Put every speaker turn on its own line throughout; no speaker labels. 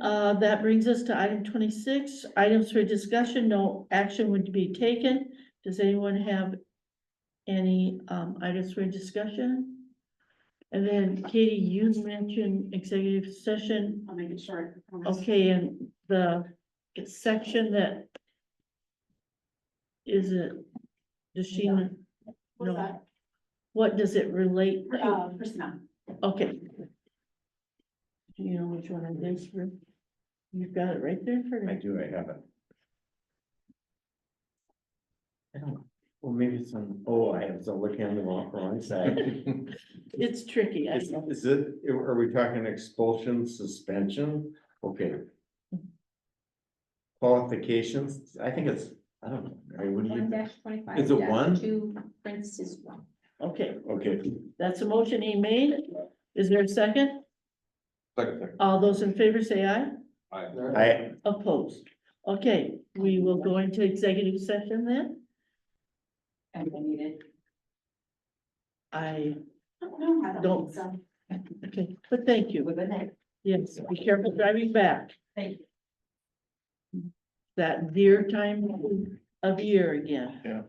Uh, that brings us to item twenty-six, items for discussion, no action would be taken. Does anyone have any, um, items for discussion? And then Katie, you mentioned executive session,
I'll make it short. I promise.
okay, and the section that is it, does she,
What's
no. what does it relate
that?
to?
Uh, personnel.
Okay. Do you know which one it is for? You've got it right there for
I
me.
do, I have it. I don't, well, maybe it's on, oh, I was looking on the wrong, wrong side.
It's tricky, I
Is
know.
is it, are we talking expulsion, suspension? Okay. Qualifications, I think it's, I don't know, I
One
wouldn't,
dash twenty-five.
Is it
dash
one?
Two, Prince is one.
Okay,
okay.
that's a motion he made. Is there a second? All those in favor say aye.
I,
Opposed. Okay, we will go into executive session then.
And I need it.
I,
No, I don't
Don't.
think so.
okay, but thank you.
Well, Good night.
Yes, be careful driving back.
Thank
you. That dear time of year again.
Yeah.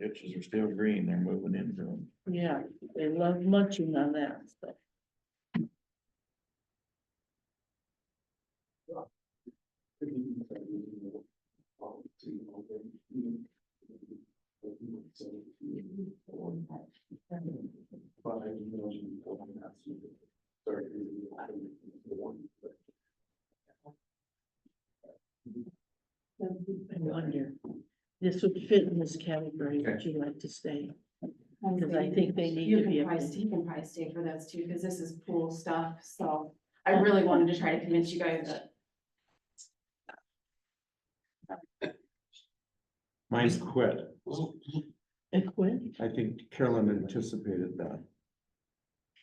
Ditches are still green, they're moving into them.
Yeah, they love munching on that stuff. I wonder, this would fit in this category, would you like to stay? Because I think they need
You
to be
can
able
probably,
to-
you can probably stay for those too, because this is pool stuff, so I really wanted to try to convince you guys that.
mine's quit.
And quit?
I think Carolyn anticipated that.